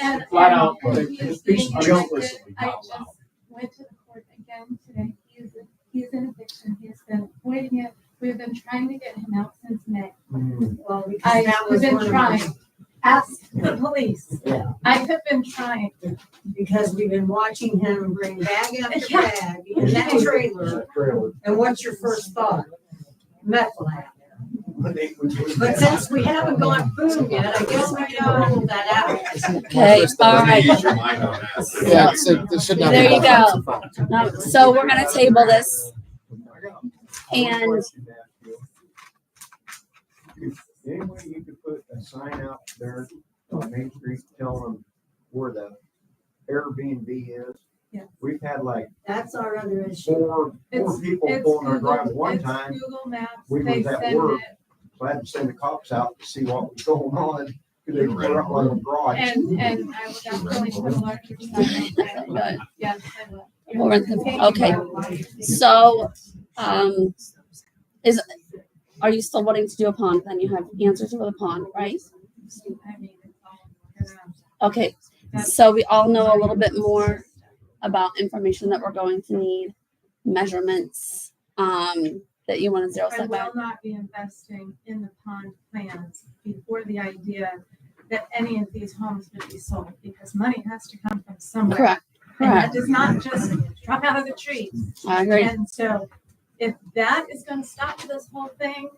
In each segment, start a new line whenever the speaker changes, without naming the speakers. And-
flat out,
and
like,
he's
he's
being
junk
convicted.
recently,
I
not
just
allowed.
went to the court again today. He is, he is in eviction. He has been avoiding it. We've been trying to get him out since May.
Well, because
I
that
have
was
been
one of
trying.
them.
Ask the police.
Yeah.
I have been trying.
Because we've been watching him bring bag after
Yeah.
bag in that trailer. And what's your first thought? Meth lab. But since we haven't gone boom yet, I guess we can roll that out.
Okay, all right.
Yeah, so there should not be.
There you
violence.
Um, So we're gonna table this and
Any way you could put a sign out there on Main Street telling them where the Airbnb is?
Yeah.
We've had like
That's our other issue.
four,
It's-
four people
It's
pulling our drive
Google-
one
it's
time,
Google Maps.
we
They
was at
send
work.
it.
glad to send the cops out to see what was going on. 'cause They were up like a garage.
And, and I would definitely put a larger sign on that.
Good.
Yes, I would.
More than- okay. So, um, is, are you still wanting to do a pond? Then you have answers for the pond, right?
I mean, it's all-
Okay, so we all know a little bit more about information that we're going to need, measurements, um, that you want to zero
I will
setback.
not be investing in the pond plans before the idea that any of these homes would be sold, because money has to come from somewhere.
Correct,
And that
correct.
does not just drop out of the tree.
I agree.
And so if that is gonna stop this whole thing,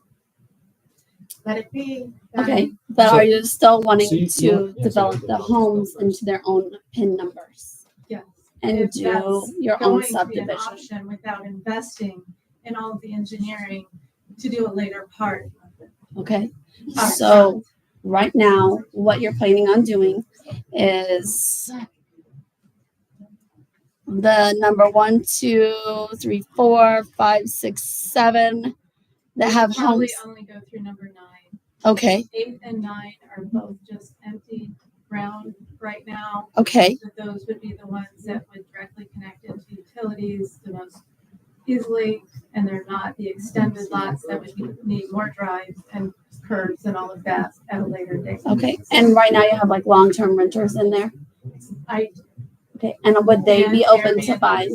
let it be. Um, then
Okay, but are you still
So
wanting
you- you
to
want- yeah, so
develop
you
the
want to
homes
go first.
into their own pin numbers?
Yes.
And
If
do
that's
your own
Going to be an
subdivision?
option without investing in all of the engineering to do a later part.
Okay,
All right.
so right now, what you're planning on doing is the number one, two, three, four, five, six, seven that have
Probably
homes.
only go through number nine.
Okay,
eight and nine are both just empty ground right now.
okay,
That those would be the ones that would directly connect into utilities the most easily. And they're not the extended lots that would need- need more drives and curbs and all of that at a later date.
okay. And right now you have like long-term renters in there.
I,
Okay, and would they be
And
open to
Airbnb.
buy?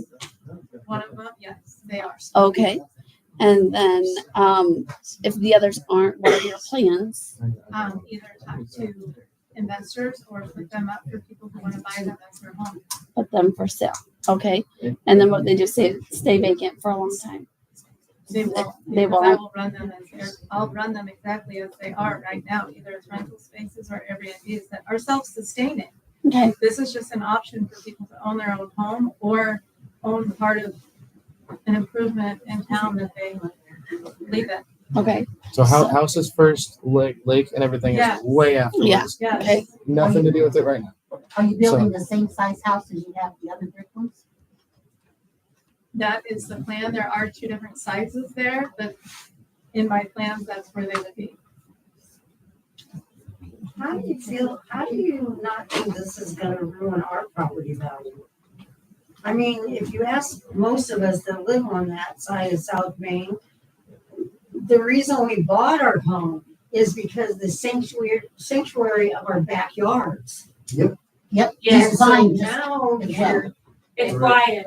one of them, yes, they are.
Okay. And then, um, if the others aren't, what are your plans?
Um, either talk to investors or put them up for people who want to buy them as their home.
Put them for sale, okay? And then what they do, stay, stay vacant for a long time.
They will.
They
because I
won't.
will run them as, they're- I'll run them exactly as they are right now, either as rental spaces or Airbnbs that are self-sustaining.
Okay,
This is just an option for people to own their own home or own part of an improvement in town that they leave it.
Okay,
So hou- houses first, lake, lake and everything
Yeah.
is way afterwards.
Yeah.
Yes.
Okay.
Nothing to do with it right now.
Are you building the same size house as you have the other brick ones?
That is the plan. There are two different sizes there, but in my plans, that's where they would be.
How do you feel, how do you not think this is gonna ruin our property value? I mean, if you ask most of us that live on that side of South Main, the reason we bought our home is because the sanctuary, sanctuary of our backyards.
Yep.
And
Yes.
so
Fine, just-
now you're,
It's
Brian.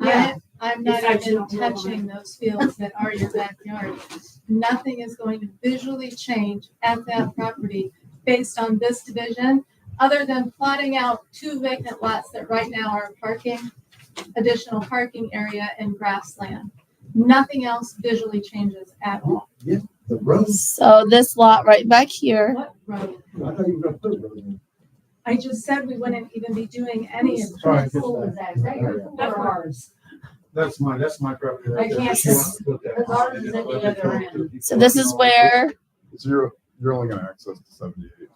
I, I'm not
Besides
even
your lawn.
touching those fields that are your backyard. Nothing is going to visually change at that property based on this division, other than plotting out two vacant lots that right now are parking, additional parking area and grassland. Nothing else visually changes at all.
The roads,
so this lot right back here,
What road?
I thought you were gonna put roads in.
I just said we wouldn't even be doing any of
Sorry, just
Cool
that.
is that, is that your
That's
or ours?
That's my, that's my property right
I
there.
can't
She wants to put
the
that on.
garden's at the other end.
so this is where,
So you're, you're only gonna access to seventy-eight.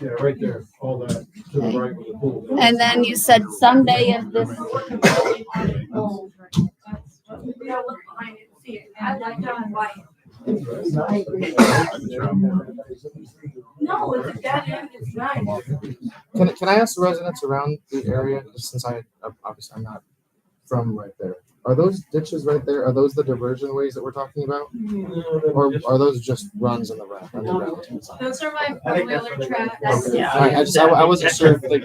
Yeah, right there, all that, to the right with the pool.
and then you said someday if
those.
this,
That's what we
We don't look behind it and see it. I
And
like
like
John
on-
White.
I agree.
No, it's a dead end, it's nice.
Can, can I ask the residents around the area, since I, obviously I'm not from right there. Are those ditches right there, are those the diversion ways that we're talking about? Or are those just runs in the road?
Those are my
I think
four-wheeler
that's what I got.
tracks.
That's-
I, I just, I I wasn't sure if like